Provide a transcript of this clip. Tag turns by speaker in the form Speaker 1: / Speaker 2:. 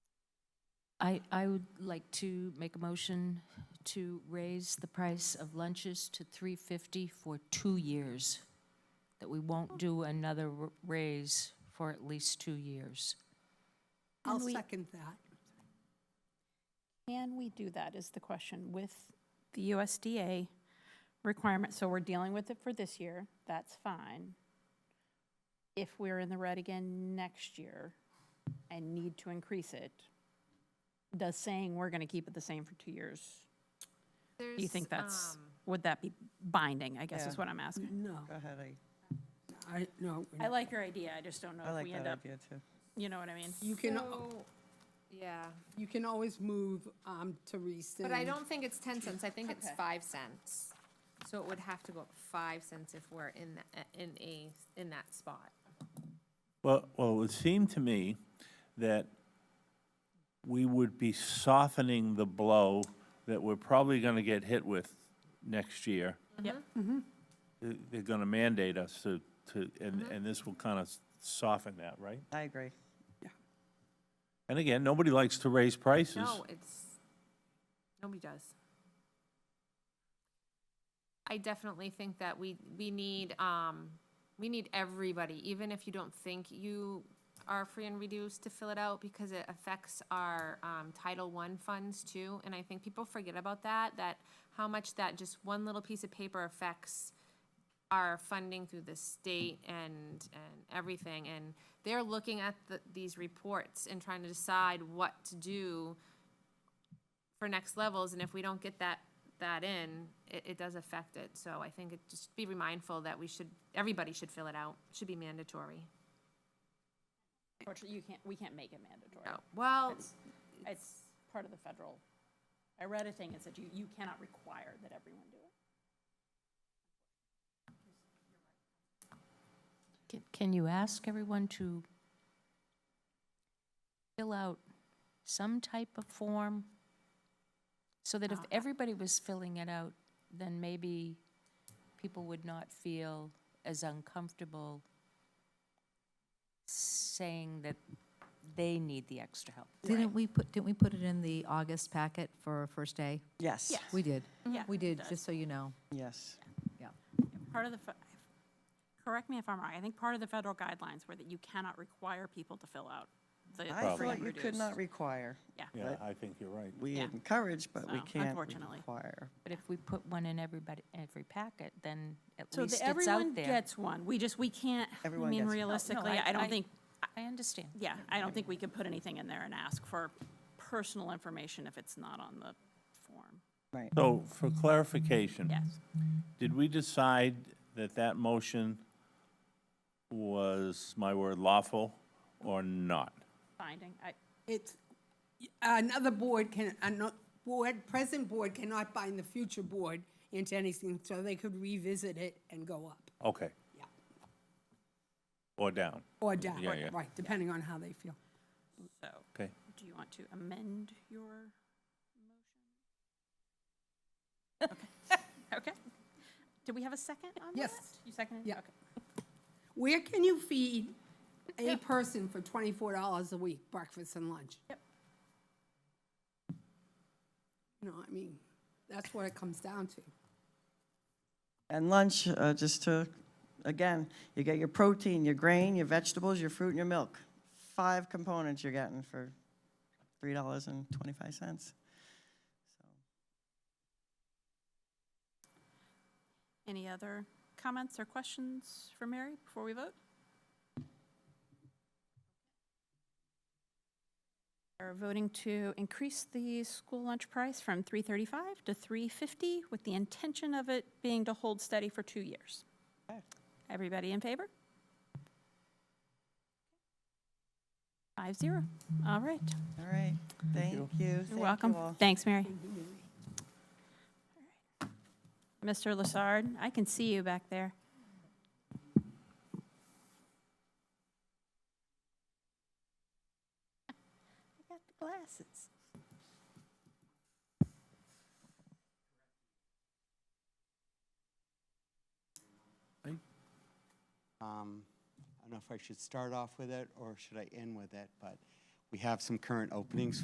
Speaker 1: I, I would like to make a motion to raise the price of lunches to three fifty for two years. That we won't do another r- raise for at least two years.
Speaker 2: I'll
Speaker 3: And we-
Speaker 2: second that.
Speaker 3: Can we do that is the question with the USDA requirement? So we're dealing with it for this year, that's fine. If we're in the red again next year and need to increase it, does saying we're gonna keep it the same for two years? Do you think
Speaker 4: um,
Speaker 3: that's, would that be binding, I guess is
Speaker 5: Yeah.
Speaker 3: what I'm asking.
Speaker 2: No,
Speaker 5: Go ahead, I,
Speaker 2: I, no.
Speaker 3: I like your idea, I just don't know
Speaker 5: I
Speaker 3: if
Speaker 5: like
Speaker 3: we
Speaker 5: that
Speaker 3: end up,
Speaker 5: idea too.
Speaker 3: you know what I mean?
Speaker 2: You can, oh.
Speaker 4: So, Yeah,
Speaker 2: you can always move um, to rescind.
Speaker 4: but I don't think it's ten cents, I think it's
Speaker 3: Okay.
Speaker 4: five cents. So it would have to go up five cents if we're in, tha- in a, in that spot.
Speaker 6: Well, well, it would seem to me that we would be softening the blow that we're probably going to get hit with next year.
Speaker 3: Yep.
Speaker 6: They- They're going to mandate us to, to, and, and this will kind of soften that, right?
Speaker 5: I agree.
Speaker 6: And again, nobody likes to raise prices.
Speaker 4: No, it's, nobody does. I definitely think that we, we need, um, we need everybody, even if you don't think you are free and reduced to fill it out, because it affects our, um, Title I funds too, and I think people forget about that, that how much that just one little piece of paper affects our funding through the state and, and everything, and they're looking at the, these reports and trying to decide what to do for next levels, and if we don't get that, that in, it, it does affect it, so I think it, just be mindful that we should, everybody should fill it out, It should be mandatory.
Speaker 3: Unfortunately, you can't, we can't make it mandatory.
Speaker 4: Oh, Well,
Speaker 3: It's, it's part of the federal, I read a thing that said you, you cannot require that everyone do it.
Speaker 1: Can- Can you ask everyone to fill out some type of form? So that if
Speaker 3: Uh,
Speaker 1: everybody was filling it out, then maybe people would not feel as uncomfortable saying that they need the extra help.
Speaker 7: Didn't we put, didn't we put it in the August packet for first day?
Speaker 5: Yes.
Speaker 3: Yeah.
Speaker 7: We did.
Speaker 3: Yeah,
Speaker 7: We
Speaker 3: it
Speaker 7: did,
Speaker 3: does.
Speaker 7: just so you know.
Speaker 5: Yes.
Speaker 7: Yeah.
Speaker 3: Part of the, fe- correct me if I'm wrong, I think part of the federal guidelines were that you cannot require people to fill out the
Speaker 5: I
Speaker 3: free
Speaker 5: thought
Speaker 3: and
Speaker 5: you could
Speaker 3: reduced.
Speaker 5: not require.
Speaker 3: Yeah,
Speaker 6: Yeah, I think you're right.
Speaker 5: We
Speaker 3: Yeah.
Speaker 5: encourage, but we
Speaker 3: So,
Speaker 5: can't
Speaker 3: unfortunately.
Speaker 5: require.
Speaker 1: But if we put one in everybody, every packet, then at
Speaker 3: so
Speaker 1: least
Speaker 3: the,
Speaker 1: it's out
Speaker 3: everyone
Speaker 1: there. Oh,
Speaker 3: gets one, we just, we can't, I
Speaker 5: Everyone
Speaker 3: mean,
Speaker 5: gets one.
Speaker 3: realistically,
Speaker 1: I-
Speaker 3: I don't
Speaker 1: I-
Speaker 3: think,
Speaker 1: I understand.
Speaker 3: yeah, I don't think we could put anything in there and ask for personal information if it's not on the form.
Speaker 5: Right.
Speaker 6: So for clarification.
Speaker 3: Yes.
Speaker 6: Did we decide that that motion was, my word, lawful or not?
Speaker 3: Finding, I,
Speaker 2: It's, another board can, another board, present board cannot bind the future board into anything, so they could revisit it and go up
Speaker 6: Okay.
Speaker 2: Yeah.
Speaker 6: Or down?
Speaker 2: or down,
Speaker 6: Yeah, yeah.
Speaker 2: right, depending on how they feel.
Speaker 3: so,
Speaker 6: Okay.
Speaker 3: do you want to amend your motion? Okay, okay. Do we have a second on that?
Speaker 2: Yes.
Speaker 3: You seconded?
Speaker 2: Yeah.
Speaker 3: Mm-hmm. Okay.
Speaker 2: Where can you feed a person for twenty-four dollars a week, breakfast and lunch?
Speaker 3: Yep.
Speaker 2: You know, I mean, that's what it comes down to.
Speaker 5: And lunch, uh, just to, again, you get your protein, your grain, your vegetables, your fruit, and your milk. Five components you're getting for three dollars and twenty-five cents.
Speaker 3: Any other comments or questions for Mary before we vote? We're voting to increase the school lunch price from 335 to 350 with the intention of it being to hold steady for two years.
Speaker 5: Okay.
Speaker 3: Everybody in favor? Five zero. All right.
Speaker 5: All right, thank you. Thank
Speaker 3: You're
Speaker 5: you
Speaker 3: welcome.
Speaker 5: all.
Speaker 3: Thanks, Mary. Mr. Lassard, I can see you back there. I got the glasses.
Speaker 8: Um, I don't know if I should start off with it or should I end with it, but we have some current openings